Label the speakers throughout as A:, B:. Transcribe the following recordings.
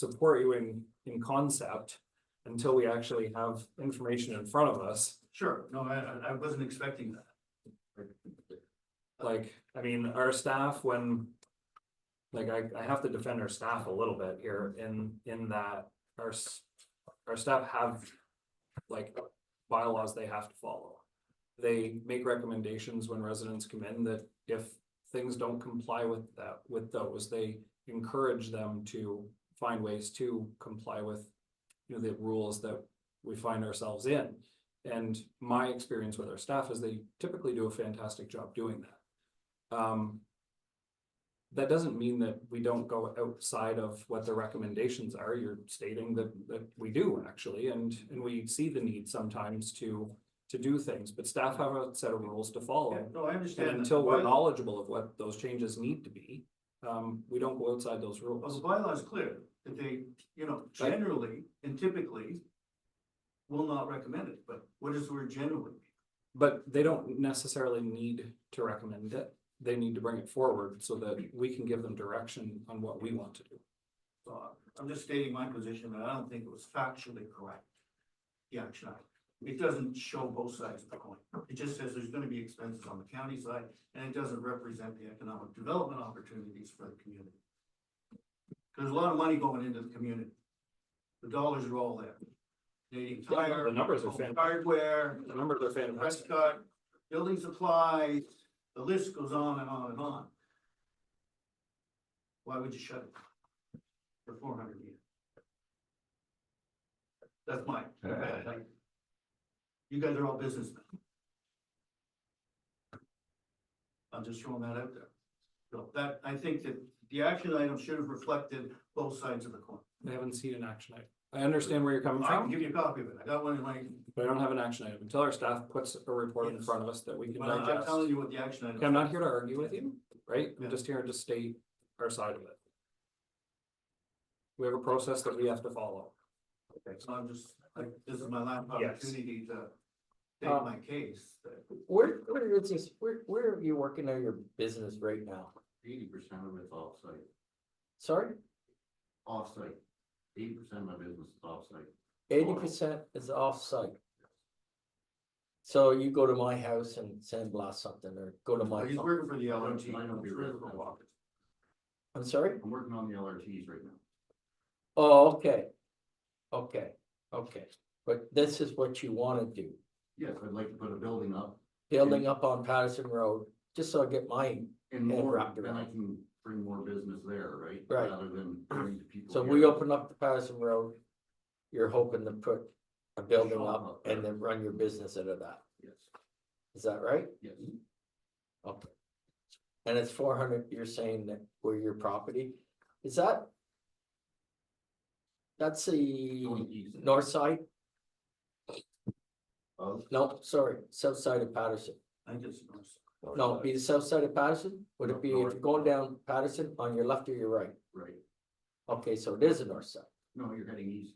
A: support you in, in concept until we actually have information in front of us.
B: Sure, no, I, I- I wasn't expecting that.
A: Like, I mean, our staff, when. Like, I, I have to defend our staff a little bit here in, in that our, s- our staff have. Like bylaws they have to follow. They make recommendations when residents come in that if things don't comply with that, with those, they encourage them to. Find ways to comply with, you know, the rules that we find ourselves in. And my experience with our staff is they typically do a fantastic job doing that. Um. That doesn't mean that we don't go outside of what the recommendations are. You're stating that that we do actually, and and we see the need sometimes to. To do things, but staff have a set of rules to
B: Yeah,
A: follow.
B: No, I
A: Oh. And
B: understand.
A: until we're
B: Bylaw-
A: knowledgeable of what those changes need to be, um, we don't go outside those
B: Well, the
A: rules.
B: bylaw is clear, that they, you know, generally and typically will not recommend it, but what does the word generally? mean?
A: But they don't necessarily need to recommend it. They need to bring it forward so that we can give them direction on what we want to do.
B: So I'm just stating my position, that I don't think it was factually correct. The action item. It doesn't show both sides of the coin. It just says there's gonna be expenses on the county side, and it doesn't represent the economic development opportunities for the community. There's a lot of money going into the community. The dollars are all there. Canadian Tire,
A: The numbers are
B: Home
A: fantastic.
B: Hardware,
A: The numbers are fantastic.
B: Prescott, building supplies, the list goes on and on and on. Why would you shut it? For four hundred years? That's mine. You guys are all businessmen. I'm just throwing that out there. So that, I think that the action item should have reflected both sides of the coin.
A: They haven't seen an action item. I understand where you're coming
B: I can
A: from,
B: give you a copy of it. I got one in my,
A: but I don't have an action item until our staff puts a report in
B: Yes.
A: front of us that we can
B: well, I'm
A: digest.
B: telling you what the action item.
A: Okay, I'm not here to argue with you, right?
B: Yeah.
A: I'm just here to state our side of it. We have a process that we have to follow.
B: Okay, so I'm just, like, this is my last
A: Yes.
B: opportunity to
C: Uh,
B: take my case.
C: Where, where is this, where, where are you working on your business right now?
D: Eighty percent of it's offsite,
C: Sorry,
D: offsite. Eighty percent of my business is offsite.
C: eighty percent is off-site. So you go to my house and sandblast something or go to my,
B: He's working for the LRT.
D: Mine will be residential.
C: I'm sorry?
D: I'm working on the LRTs right now.
C: Oh, okay. Okay, okay, but this is what you wanna do,
D: Yes, I'd like to put a building up
C: building up on Patterson Road, just so I get my,
D: and
C: Yeah,
D: more,
C: wrapped
D: then I
C: around.
D: can bring more business there, right?
C: Right.
D: Rather than bring the people.
C: so
D: here.
C: we open up the Patterson Road. You're hoping to put a building up and then run your business out of that,
D: Yes,
C: is that right?
D: yes,
C: Okay. And it's four hundred, you're saying that were your property, is that? That's
D: going
C: the
D: east.
C: north side,
D: Of,
C: no, sorry, south side of Patterson,
B: I just, noticed.
C: no, it'd be the south side of Patterson, would it be if you're going down Patterson on your left or your right?
D: right,
C: Okay, so it is the north side,
D: no, you're heading east.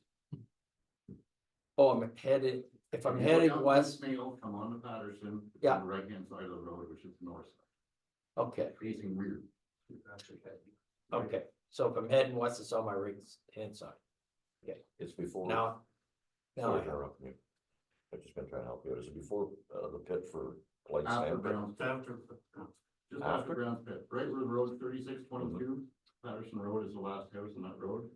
C: oh, I'm headed, if I'm
D: You go
C: heading
D: down
C: west,
D: Mail, come on to Patterson.
C: Yeah.
D: Right hand side of the road, which is the north side,
C: okay,
D: facing rear.
C: okay, so if I'm heading west, it's on my right hand side,
E: It's before.
C: now. Now, I
E: Sorry to
C: have-
E: interrupt you. I've just been trying to help you. Is it before uh, the pit for light
D: After
E: sand? pit?
D: Brown's
B: it's after,
D: Just after
E: After?
D: Brown's Pit, right where the road
E: Mhm.
D: thirty-six twenty-two, Patterson Road is the last house on that road.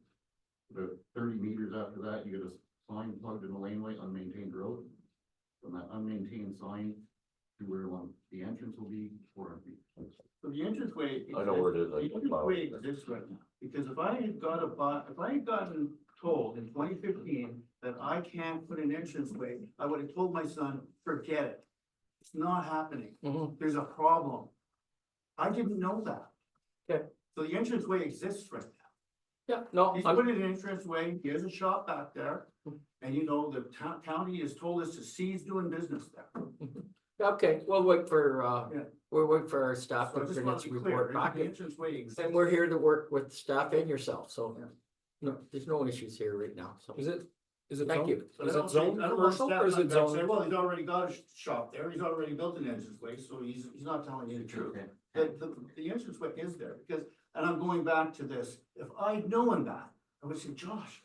D: About thirty meters after that, you get a sign plugged in the laneway, unmaintained road. From that unmaintained sign to where one, the entrance will be four hundred feet.
B: so the entranceway.
E: I know where it is.
B: The
E: I can follow
B: entranceway
E: it.
B: exists right now, because if I had got a, bu- if I had gotten told in twenty fifteen that I can't put an entranceway, I would have told my son, forget it. It's not happening.
C: Mhm.
B: there's a problem. I didn't know that.
C: Okay.
B: So the entranceway exists right now.
C: yeah, no,
B: He's
C: I'm,
B: put in an entranceway, he has a shop back there, and you know, the town, county has told us to cease doing business there.
C: Okay, we'll wait for, uh,
B: Yeah.
C: we'll wait for our staff
B: So I
C: to
B: just want
C: finish
B: to be clear,
C: report back,
B: the entranceway exists.
C: and we're here to work with staff and yourself, so.
B: Yeah.
C: No, there's no issues here right now, so,
A: Is it, is it?
C: thank
A: zoned?
C: you,
B: But I
A: Is it
B: don't think-
A: zoned
B: I don't want
A: commercial or is
B: staff
A: it
B: to come back and say,
A: zoned?
B: Well, he's already got a sh- shop there, he's already built an entranceway, so he's, he's not telling you the truth.
D: Okay.
B: The, the, the entranceway is there, because, and I'm going back to this, if I'd known that, I would say, Josh,